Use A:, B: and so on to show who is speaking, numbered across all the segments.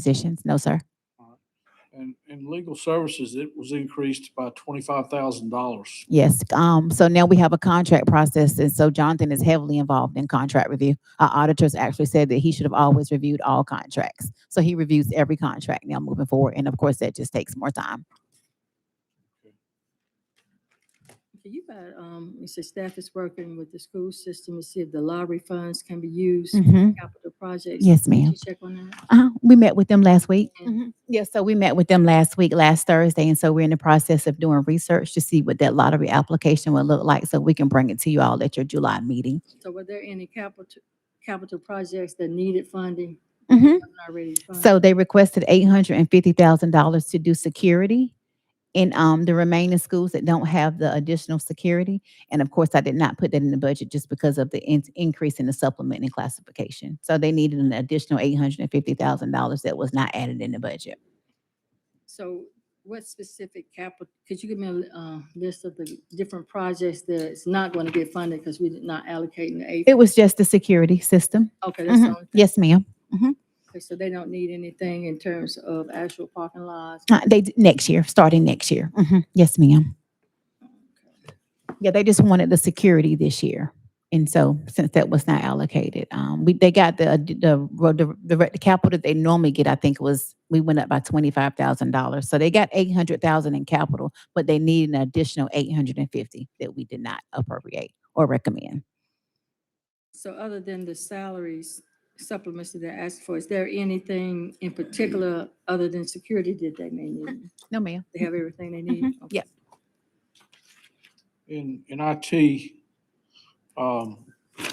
A: positions. No, sir.
B: And, and legal services, it was increased by twenty-five thousand dollars.
A: Yes, um, so now we have a contract process, and so Jonathan is heavily involved in contract review. Our auditors actually said that he should have always reviewed all contracts. So he reviews every contract now moving forward, and of course, that just takes more time.
C: Okay, You got, um, you said staff is working with the school system to see if the lottery funds can be used for capital
A: Mm-hmm.
C: projects.
A: Yes,
C: Did
A: ma'am. Mm-hmm.
C: you check on that?
A: Uh, we met with them last week.
C: Mhm.
A: Yeah, so we met with them last week, last Thursday, and so we're in the process of doing research to see what that lottery application would look like, so we can bring it to you all at your July meeting.
C: So were there any capital, capital projects that needed funding? already funded?
A: Mm-hmm. So they requested eight hundred and fifty thousand dollars to do security in um the remaining schools that don't have the additional security. And of course, I did not put that in the budget just because of the in- increase in the supplement and classification. So they needed an additional eight hundred and fifty thousand dollars that was not added in the budget.
C: So what specific capital, could you give me a, li- uh, list of the different projects that's not going to get funded because we did not allocate the aid?
A: It was just the security system.
C: Okay, that's the
A: Mhm.
C: only thing.
A: Yes, ma'am.
C: Okay, So they don't need anything in terms of actual parking lots?
A: Uh, They, d- next year, starting next year. Mhm. Yes, ma'am. Yeah, they just wanted the security this year. And so since that was not allocated, um, we, they got the, ad- the, ro- the, the re- the capital that they normally get, I think was, we went up by twenty-five thousand dollars. So they got eight hundred thousand in capital, but they need an additional eight hundred and fifty that we did not appropriate or recommend.
C: So other than the salaries supplements that they asked for, is there anything in particular other than security that they may need?
A: No, ma'am.
C: They have everything they need? Okay.
A: Yep.
B: In, in IT, um,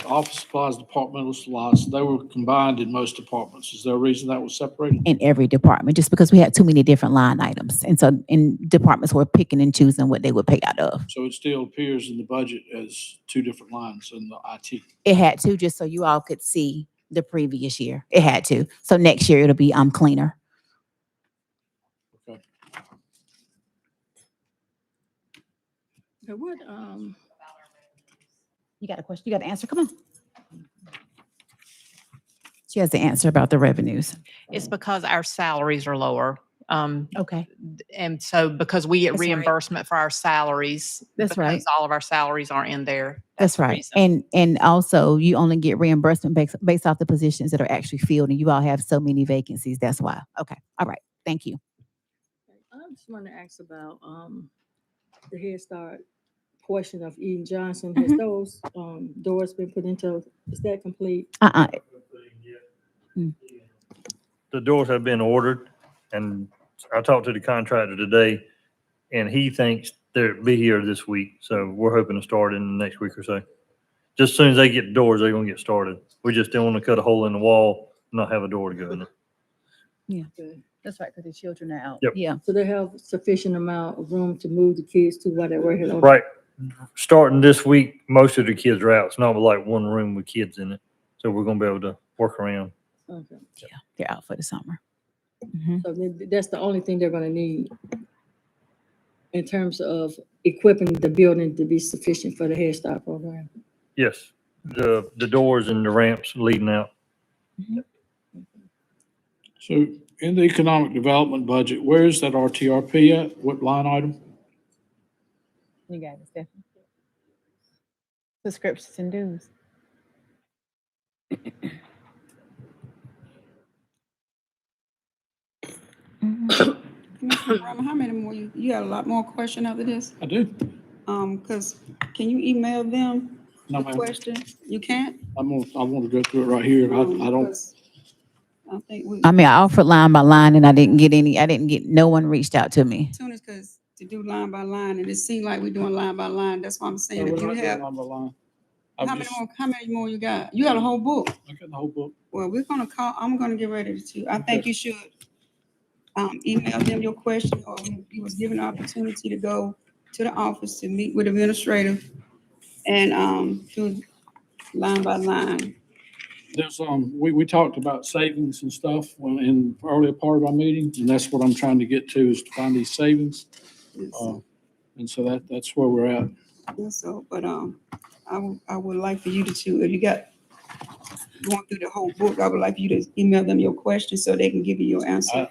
B: office supplies, departmental supplies, they were combined in most departments. Is there a reason that was separated?
A: In every department, just because we had too many different line items. And so, and departments were picking and choosing what they would pay out of.
B: So it still appears in the budget as two different lines in the IT.
A: It had to, just so you all could see the previous year. It had to. So next year it'll be um cleaner.
C: So what, um,
A: You got a question? You got an answer? Come on. She has the answer about the revenues.
D: It's
A: Mm.
D: because our salaries are lower. Um,
A: Okay.
D: and so because we get
A: That's right.
D: reimbursement for our salaries.
A: That's right.
D: because All of our salaries aren't in there.
A: That's
D: the
A: right.
D: reason.
A: And and also you only get reimbursement based based off the positions that are actually filled and you all have so many vacancies. That's why. Okay. All right. Thank you.
C: I just want to ask about, um, the Head Start portion of Eden Johnson. Has
A: Mhm.
C: those, um, doors been put into, is that complete?
A: Uh-uh.
E: the doors have been ordered, and I talked to the contractor today, and he thinks they'll be here this week, so we're hoping to start in the next week or so. Just as soon as they get the doors, they're gonna get started. We just don't want to cut a hole in the wall, and not have a door to go in it.
A: That's right, because the children are out.
E: Yep.
A: Yeah.
C: So they have sufficient amount of room to move the kids to where they were here? on-
E: Right, starting this week, most of the kids are out. It's not like one room with kids in it, so we're gonna be able to work around.
C: Okay.
A: They're out for the summer. Mhm.
C: So then th- that's the only thing they're gonna need in terms of equipping the building to be sufficient for the Head Start program.
E: Yes, the, the doors and the ramps leading out.
B: So in the economic development budget, where is that RTRP at? What line item?
A: You got it, Stephanie. Subscriptions and dues.
F: Mr. Brown, How many more, you you got a lot more question after this?
B: I do.
F: Um, because, can you email them
B: No,
F: the
B: ma'am.
F: question? You can't?
B: I'm gonna, I want to go through it right here. I,
F: Um,
B: I don't,
F: 'cause I think we,
A: I mean, I offered line by line and I didn't get any, I didn't get, no one reached out to me.
F: soon as, because to do line by line, and it seemed like we're doing line by line, that's why I'm
B: No,
F: saying,
B: we're
F: if you
B: not
F: have,
B: going line by line.
F: how
B: I'm
F: many
B: just,
F: more, how many more you got? You got a whole book.
B: I got the whole book.
F: Well, we're gonna call, I'm gonna get ready to, I think
B: Okay.
F: you should, um, email them your question, or you- you was given the opportunity to go to the office to meet with administrative and, um, do line by line.
B: There's, um, we, we talked about savings and stuff when, in earlier part of our meetings, and that's what I'm trying to get to is to find these savings. Uh, And so that, that's where we're at.
F: Yeah, So, but, um, I would, I would like for you to, two- if you got, going through the whole book, I would like you to email them your questions so they can give you your answer.
B: I-